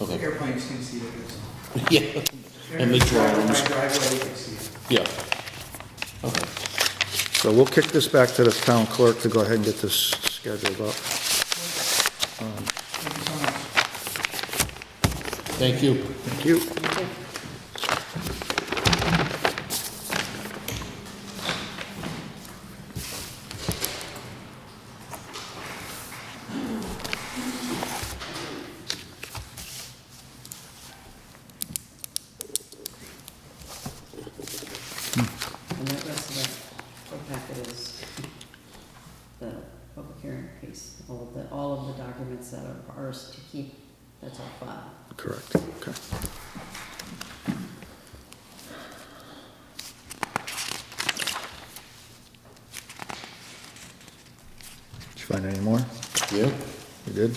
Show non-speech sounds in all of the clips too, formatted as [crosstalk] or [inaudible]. Okay, Airplanes can see it. it's- yeah, And the Airplanes drive by drones. Driveway, you can see it. yeah. Okay, So we'll kick this back to the town clerk to go ahead and get this scheduled up. Thank you so much. thank you. Thank you. And that rest of that whole packet is the public hearing piece, all of the, all of the documents that are ours to keep, that's our file. Correct, okay. Did you find any more? Yeah, You did?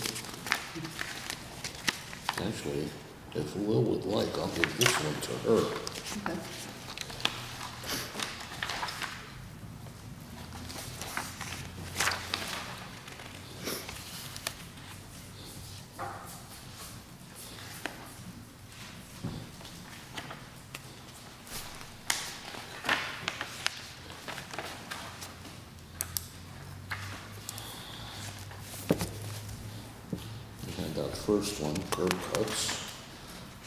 actually, if Will would like, I'll give this one to her. Okay. We had that first one, curb cuts.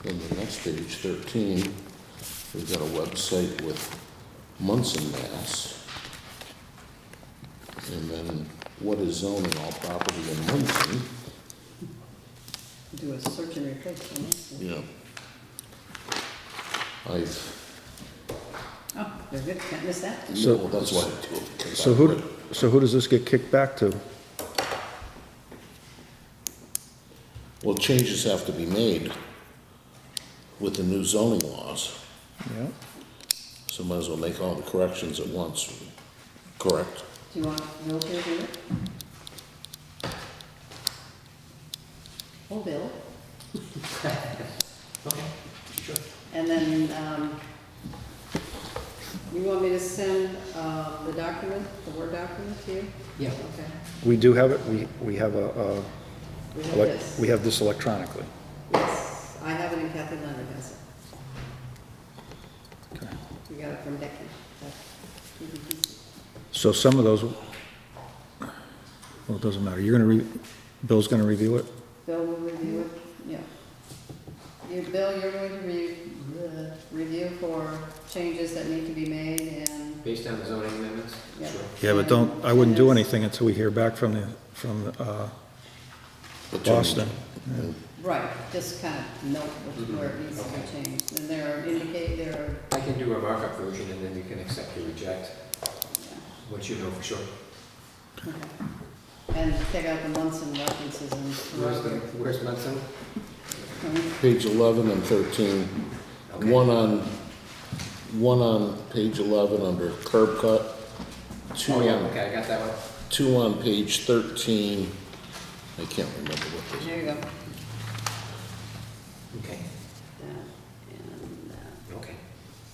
Then the next page, 13, we've got a website with Munson, Mass. And then what is zoning all property in Munson? Do a search and replace on this one. Yeah. I've, Oh, they're good, can't miss that. So- well, that's why I do it. 'cause So I who, read- so who does this get kicked back to? Well, changes have to be made with the new zoning laws, Yeah, so might as well make all the corrections at once, correct? Do you want, Bill to do it? Oh, [laughs] Bill. Okay, sure. And then, um, you want me to send, uh, the document, the Word document to you? Yeah. Okay. we do have it, we, we have a, uh, We have elec- this. we have this electronically. Yes, I have it and Kathy Leonard has it. Okay. We got it from Becky. So some of those, well, it doesn't matter, you're gonna re, Bill's gonna review it? Bill will review it, yeah. You, Bill, you're going to re, the review for changes that need to be made and, Based on the zoning amendments? yeah. Sure. Yeah, but don't, I wouldn't do anything until we hear back from the, from, uh, The change. Boston. Right, just kind of note which- where it needs to be changed. And there are indicate, there are, I can do a markup version and then you can accept or reject, yeah, once you know for sure. okay. And take out the Munson references and. Where's the, where's Munson? Page 11 and 13. Okay. One on, one on page 11 under curb cut, two Oh, yeah, on, okay, I got that one. two on page 13. I can't remember what this, There you go. Okay, Yeah, And, uh, okay.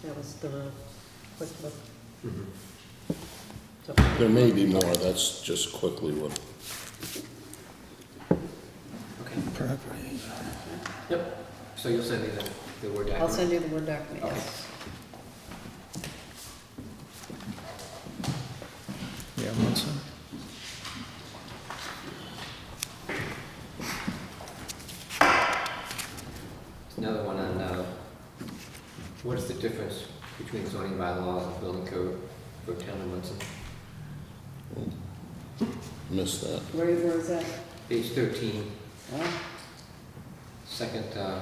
That was the quick look. Mhm. So- there may be more, that's just quickly what, Okay. Yep, so you'll send me the, the Word document? I'll send you the Word document, Okay. yes. Yeah, Munson. Another one on, uh, what is the difference between zoning bylaws and building code for town of Munson? missed that. Where, where is that? Page thirteen, Oh, second, uh,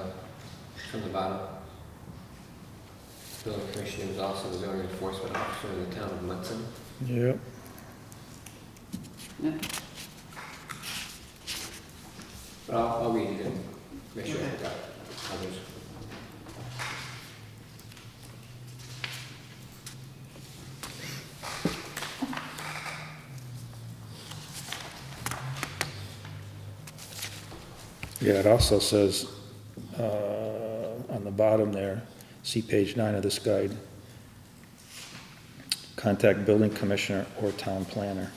from the bottom. Building commissioner is also the zoning enforcement officer in the town of Munson. Yep. no, But I'll, I'll read it and make sure Okay. I've got others. Yeah, it also says, uh, on the bottom there, see page nine of this guide. Contact building commissioner or town planner.